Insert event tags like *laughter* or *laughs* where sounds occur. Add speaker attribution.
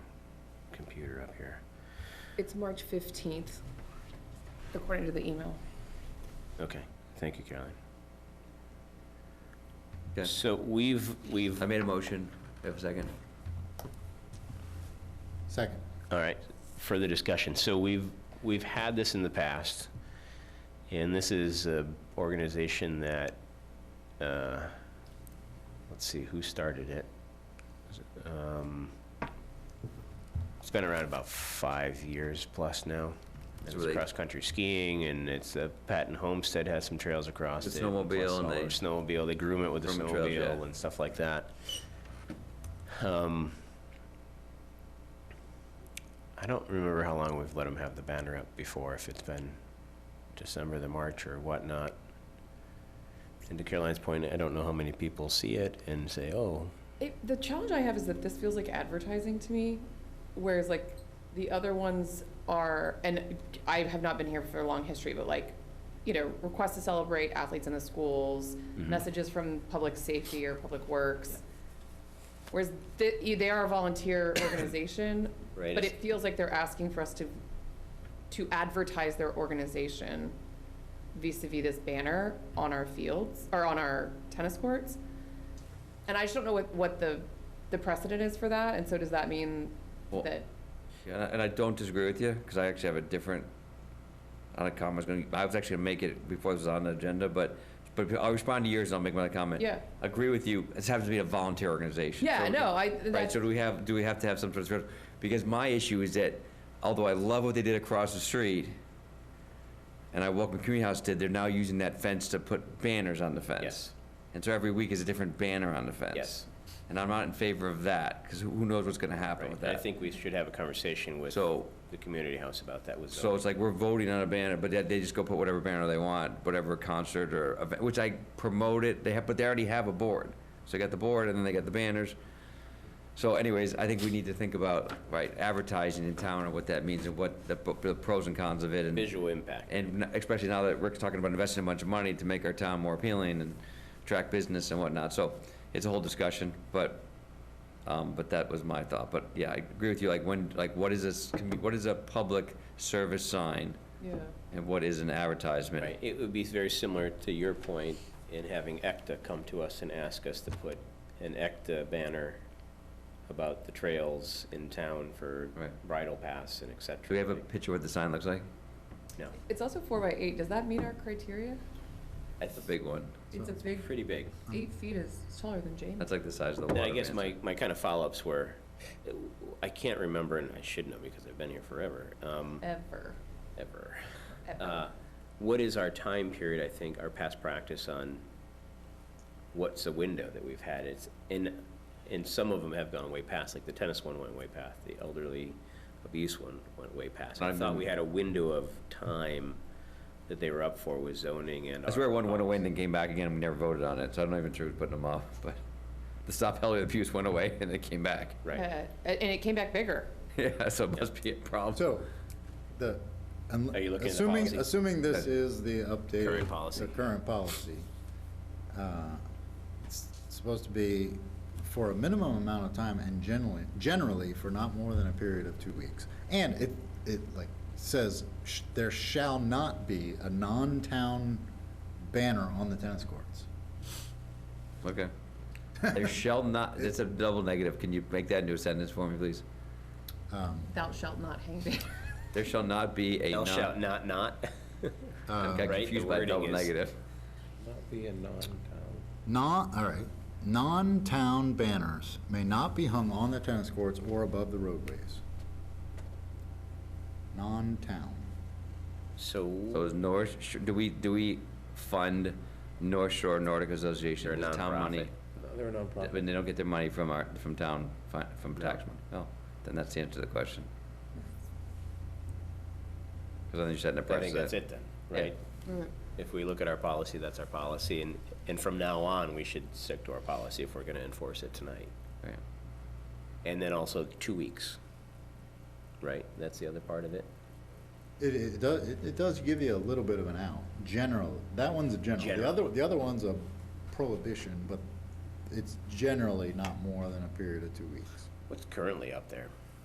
Speaker 1: calendar up here.
Speaker 2: It's March 15th, according to the email.
Speaker 1: Okay, thank you, Caroline.
Speaker 3: Okay.
Speaker 1: So we've, we've,
Speaker 3: I made a motion, Do I have a second.
Speaker 4: Second.
Speaker 1: all right, further discussion. So we've, we've had this in the past, and this is an organization that, uh, let's see, who started it? Was it, um, It's been around about five years plus now.
Speaker 3: So
Speaker 1: It's
Speaker 3: they-
Speaker 1: cross-country skiing, and it's, uh, Patton Homestead has some trails across it.
Speaker 3: The snowmobile
Speaker 1: plus
Speaker 3: and
Speaker 1: all
Speaker 3: they-
Speaker 1: our Snowmobile, they groom it with the
Speaker 3: Groom the trails,
Speaker 1: snowmobile
Speaker 3: yeah.
Speaker 1: and stuff like that. Um, I don't remember how long we've let them have the banner up before, if it's been December to March or whatnot. And to Caroline's point, I don't know how many people see it and say, oh,
Speaker 2: It, the challenge I have is that this feels like advertising to me, whereas like the other ones are, and I have not been here for a long history, but like, you know, requests to celebrate athletes in the schools, messages from public safety or public works. Whereas th- you- they are a volunteer organization,
Speaker 1: Right,
Speaker 2: but
Speaker 1: it's-
Speaker 2: it feels like they're asking for us to, to advertise their organization vis-à-vis this banner on our fields, or on our tennis courts. And I just don't know what, what the, the precedent is for that, and so does that mean
Speaker 3: Well-
Speaker 2: that,
Speaker 3: Yeah, And I- and I don't disagree with you, because I actually have a different, on a comment, I was gonna, I was actually gonna make it before it was on the agenda, but, but I'll respond to yours and I'll make my comment.
Speaker 2: Yeah.
Speaker 3: Agree with you, this happens to be a volunteer organization.
Speaker 2: yeah,
Speaker 3: so-
Speaker 2: no, I,
Speaker 3: Right,
Speaker 2: that's,
Speaker 3: so do we have, do we have to have some sort of, because my issue is that, although I love what they did across the street, and I welcome Community House did, they're now using that fence to put banners on the fence.
Speaker 1: Yes.
Speaker 3: And so every week is a different banner on the fence.
Speaker 1: Yes.
Speaker 3: And I'm not in favor of that, because who knows what's gonna happen with
Speaker 1: right, I
Speaker 3: that.
Speaker 1: think we should have a conversation with
Speaker 3: So,
Speaker 1: the community house about that with
Speaker 3: so
Speaker 1: zoning.
Speaker 3: it's like we're voting on a banner, but they- they just go put whatever banner they want, whatever concert or event, which I promote it, they have, but they already have a board. So they got the board and then they got the banners. So anyways, I think we need to think about, right, advertising in town and what that means and what the pro- the pros and cons of it and.
Speaker 1: Visual impact.
Speaker 3: And n- especially now that Rick's talking about investing a bunch of money to make our town more appealing and attract business and whatnot, so it's a whole discussion, but, um, but that was my thought, but yeah, I agree with you, like when, like what is this, commu- what is a public service sign?
Speaker 2: yeah,
Speaker 3: And what is an advertisement?
Speaker 1: Right, it would be very similar to your point in having ECTA come to us and ask us to put an ECTA banner about the trails in town for
Speaker 3: Right.
Speaker 1: bridle paths and et cetera.
Speaker 3: Do we have a picture of what the sign looks like?
Speaker 1: No,
Speaker 2: it's also four by eight, does that meet our criteria?
Speaker 1: that's
Speaker 3: The big one,
Speaker 2: It's a big,
Speaker 1: pretty big.
Speaker 2: eight feet is it's taller than James.
Speaker 3: that's like the size of the
Speaker 1: And
Speaker 3: water.
Speaker 1: I guess
Speaker 3: man's-
Speaker 1: my, my kind of follow-ups were, I can't remember, and I should know because I've been here forever, um,
Speaker 2: Ever,
Speaker 1: ever.
Speaker 2: ever.
Speaker 1: Uh, What is our time period, I think, our past practice on what's the window that we've had? It's, and, and some of them have gone way past, like the tennis one went way past, the elderly abuse one went way past. I
Speaker 3: I've
Speaker 1: thought
Speaker 3: been-
Speaker 1: we had a window of time that they were up for with zoning and.
Speaker 3: I swear
Speaker 1: our
Speaker 3: one went away and
Speaker 1: policy.
Speaker 3: then came back again, and we never voted on it, so I don't even sure who's putting them off, but the stop elderly abuse went away and it came back.
Speaker 1: Right,
Speaker 2: Uh, And it came back bigger.
Speaker 3: *laughs* Yeah, so it must be a problem.
Speaker 4: So, the, un-
Speaker 1: Are you looking at the
Speaker 4: assuming,
Speaker 1: policy?
Speaker 4: assuming this is the updated.
Speaker 1: Current policy.
Speaker 4: The current policy. uh, It's supposed to be for a minimum amount of time and generally, generally for not more than a period of two weeks. And it, it like says, sh- there shall not be a non-town banner on the tennis courts.
Speaker 3: Okay. There shall not, that's a double negative. Can you make that into a sentence for me, please?
Speaker 4: Um,
Speaker 2: Thou shalt not hang banner.
Speaker 3: There shall not be a
Speaker 1: Thou shalt not,
Speaker 3: non.
Speaker 1: not.
Speaker 3: I
Speaker 4: uh,
Speaker 3: got
Speaker 1: Right, the
Speaker 3: confused by
Speaker 1: wording
Speaker 3: double
Speaker 1: is-
Speaker 3: negative.
Speaker 1: Not be a non-town.
Speaker 4: Non, all right, non-town banners may not be hung on the tennis courts or above the roadways. Non-town.
Speaker 3: So
Speaker 1: So,
Speaker 3: is North, Sh- do we, do we fund North Shore Nordic Association
Speaker 1: They're a
Speaker 3: with town money?
Speaker 1: nonprofit.
Speaker 5: They're a nonprofit.
Speaker 3: When they don't get their money from our, from town, fi- from tax money? Oh, then that's the answer to the question. Because I think you said in the
Speaker 1: I
Speaker 3: press
Speaker 1: think
Speaker 3: that-
Speaker 1: that's it then,
Speaker 3: Yeah.
Speaker 1: right? If we look at our policy, that's our policy, and, and from now on, we should stick to our policy if we're gonna enforce it tonight.
Speaker 3: Right.
Speaker 1: And then also two weeks, right? That's the other part of it?
Speaker 4: It, it does, it it does give you a little bit of an out, general, that one's a general. The
Speaker 1: General.
Speaker 4: other, the other one's a prohibition, but it's generally not more than a period of two weeks.
Speaker 1: What's currently up there?